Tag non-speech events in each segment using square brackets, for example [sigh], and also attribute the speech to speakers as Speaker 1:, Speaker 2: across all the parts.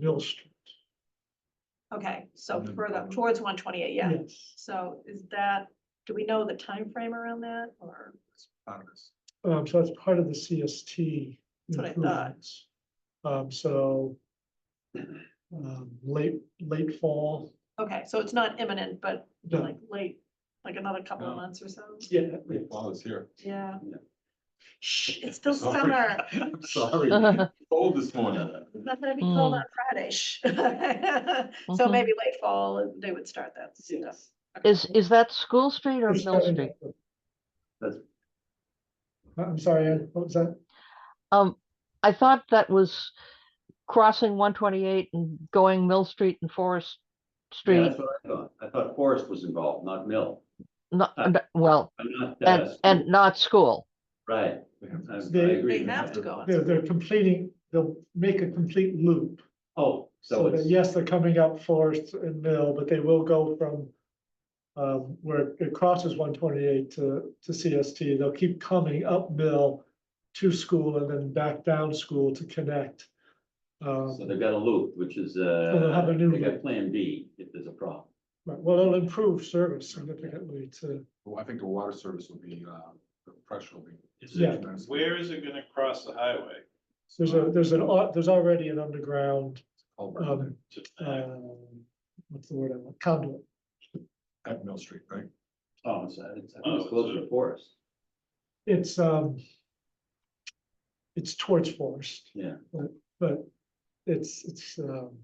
Speaker 1: Mill Street.
Speaker 2: Okay, so
Speaker 3: Mhm.
Speaker 2: further towards one twenty-eight, yeah.
Speaker 1: Yes.
Speaker 2: So is that, do we know the time frame around that or?
Speaker 3: Out of this.
Speaker 1: Um, so that's part of the CST
Speaker 2: That's what I thought.
Speaker 1: improvements. Um, so um, late, late fall,
Speaker 2: Okay, so it's not imminent, but
Speaker 1: no,
Speaker 2: like late, like another couple of
Speaker 3: No.
Speaker 2: months or so?
Speaker 1: yeah,
Speaker 3: Great fall is here.
Speaker 2: Yeah.
Speaker 3: Yeah.
Speaker 2: Shh, it's still
Speaker 3: Sorry.
Speaker 2: summer.
Speaker 3: I'm [laughs] sorry, cold this morning.
Speaker 2: It's Not gonna be cold
Speaker 4: Mm.
Speaker 2: on Friday. shh. [laughs] So
Speaker 4: Mhm.
Speaker 2: maybe late fall, they would start that stuff.
Speaker 1: yes.
Speaker 4: Is, is that School Street or
Speaker 1: It's
Speaker 4: Mill
Speaker 1: starting
Speaker 4: Street?
Speaker 1: to-
Speaker 3: That's-
Speaker 1: Uh, I'm sorry, Ed, what was that?
Speaker 4: Um, I thought that was crossing one twenty-eight and going Mill Street and Forest
Speaker 5: Yeah,
Speaker 4: Street.
Speaker 5: that's what I thought. I thought Forest was involved, not Mill.
Speaker 4: Not,
Speaker 5: uh,
Speaker 4: n- well,
Speaker 5: I'm not,
Speaker 4: and,
Speaker 5: uh,
Speaker 4: and not school.
Speaker 5: right. I- I
Speaker 1: They-
Speaker 5: agree
Speaker 2: They
Speaker 5: with
Speaker 2: have
Speaker 5: that.
Speaker 2: to go on.
Speaker 1: They're, they're completing, they'll make a complete loop.
Speaker 5: Oh, so
Speaker 1: So that,
Speaker 5: it's,
Speaker 1: yes, they're coming up Forest and Mill, but they will go from um, where it crosses one twenty-eight to, to CST. They'll keep coming up Mill to school and then back down school to connect. Um,
Speaker 5: so they've got a loop, which is,
Speaker 1: So they'll have
Speaker 5: uh,
Speaker 1: a new
Speaker 5: they got
Speaker 1: loop.
Speaker 5: Plan B if there's a problem.
Speaker 1: but- Well, it'll improve service significantly to,
Speaker 3: Well, I think the water service will be, uh, the pressure will be.
Speaker 6: Is
Speaker 1: Yeah.
Speaker 6: it, where is it gonna cross the highway?
Speaker 1: there's a, there's an, au- there's already an underground,
Speaker 3: Culvert in
Speaker 1: um,
Speaker 3: there
Speaker 6: To- uh,
Speaker 1: um, what's the word, I want? conduit.
Speaker 3: At Mill Street, right?
Speaker 5: Oh, it's, uh, it's, I think
Speaker 6: Oh,
Speaker 5: it's closer
Speaker 6: so-
Speaker 5: to Forest.
Speaker 1: It's, um, it's towards Forest.
Speaker 5: Yeah.
Speaker 1: But- But it's, it's, um,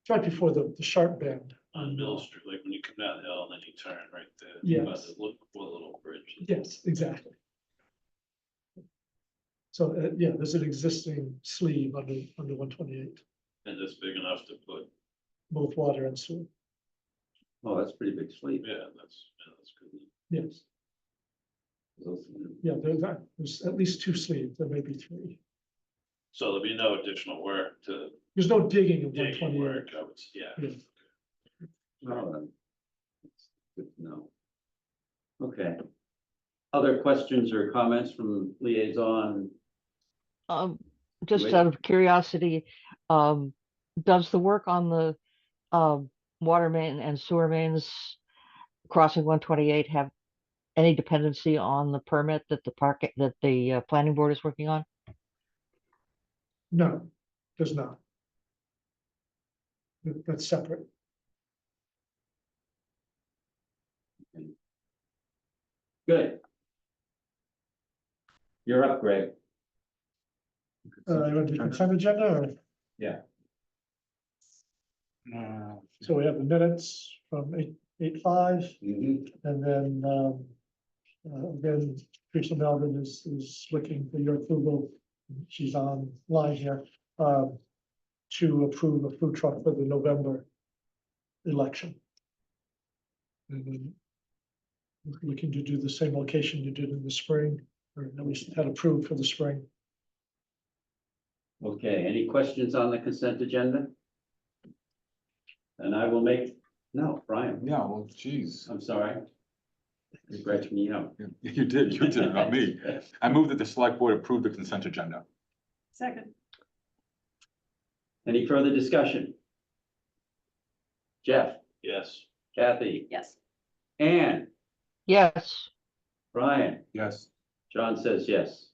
Speaker 1: it's right before the, the sharp bend.
Speaker 6: On Mill Street, like when you come down the hill and then you turn right there. by
Speaker 1: Yes.
Speaker 6: the Look for little bridge.
Speaker 1: Yes, exactly. So, uh, yeah, there's an existing sleeve under, under one twenty-eight,
Speaker 6: And it's big enough to put,
Speaker 1: both water and sewer,
Speaker 5: Oh, that's pretty big sleep.
Speaker 6: yeah, that's, yeah, that's good.
Speaker 1: yes,
Speaker 5: Those-
Speaker 1: yeah, there's, that- there's at least two sleeves, there may be three.
Speaker 6: So there'll be no additional work to
Speaker 1: There's no digging in one
Speaker 6: digging
Speaker 1: twenty-eight.
Speaker 6: work, I would, s- yeah.
Speaker 1: Yeah.
Speaker 5: oh, then. Good to know. Okay. Other questions or comments from liaison?
Speaker 4: Um, just
Speaker 5: Wait.
Speaker 4: out of curiosity, um, does the work on the, um, water main and sewer mains crossing one twenty-eight have any dependency on the permit that the park, that the, uh, planning board is working on?
Speaker 1: No, there's not. That- That's separate,
Speaker 5: Good. You're up, Greg.
Speaker 1: uh, you want to do consent agenda, or,
Speaker 3: Uh,
Speaker 1: so we have the minutes from eight, eight five,
Speaker 5: Mhm.
Speaker 1: and then, um. Uh, then Teresa Melvin is, is looking for your approval, she's online here, um. To approve a food truck for the November election. And then. we're Looking to do the same location you did in the spring, or at least had approved for the spring.
Speaker 5: Okay, any questions on the consent agenda? And I will make, no, Brian,
Speaker 3: Yeah, well, geez.
Speaker 5: I'm sorry. You scratched me out.
Speaker 3: You- [laughs] You did, you did, not [laughs] me. I move that the select board approve the consent agenda.
Speaker 2: Second,
Speaker 5: [laughs] Any further discussion? Jeff,
Speaker 6: Yes,
Speaker 5: Kathy,
Speaker 2: yes.
Speaker 5: Ann,
Speaker 4: Yes,
Speaker 5: Brian,
Speaker 3: Yes.
Speaker 5: John says yes.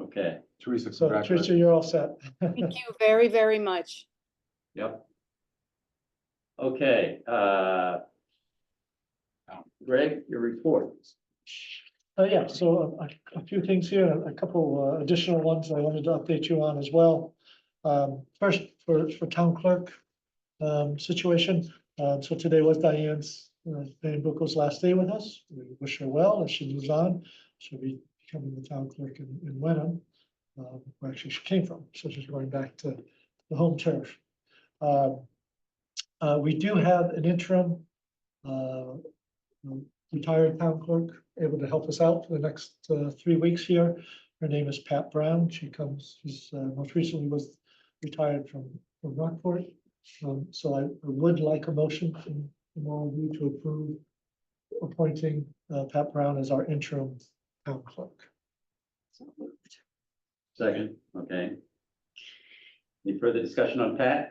Speaker 5: Okay,
Speaker 3: Teresa,
Speaker 1: So Tricia,
Speaker 3: congratulations.
Speaker 1: you're all set.
Speaker 7: Thank you very, very much.
Speaker 5: yep. Okay, uh. Greg, your report.
Speaker 1: [laughs] Uh, yeah, so a, a- a few things here, a couple uh, additional ones I wanted to update you on as well. Um, first, for, for town clerk, um, situation, uh, so today was Diane's, uh, Diane Buckel's last day with us. We wish her well as she moves on. She'll be becoming the town clerk in, in Wenham. Um, where actually she came from, so she's going back to the home turf. Um, uh, we do have an interim, uh, retired town clerk, able to help us out for the next uh, three weeks here. Her name is Pat Brown. She comes, she's uh, most recently was retired from from Rockport. Um, So I I would like a motion from from all of you to approve appointing uh, Pat Brown as our interim town clerk.
Speaker 2: So moved.
Speaker 5: Second, okay. Any further discussion on Pat?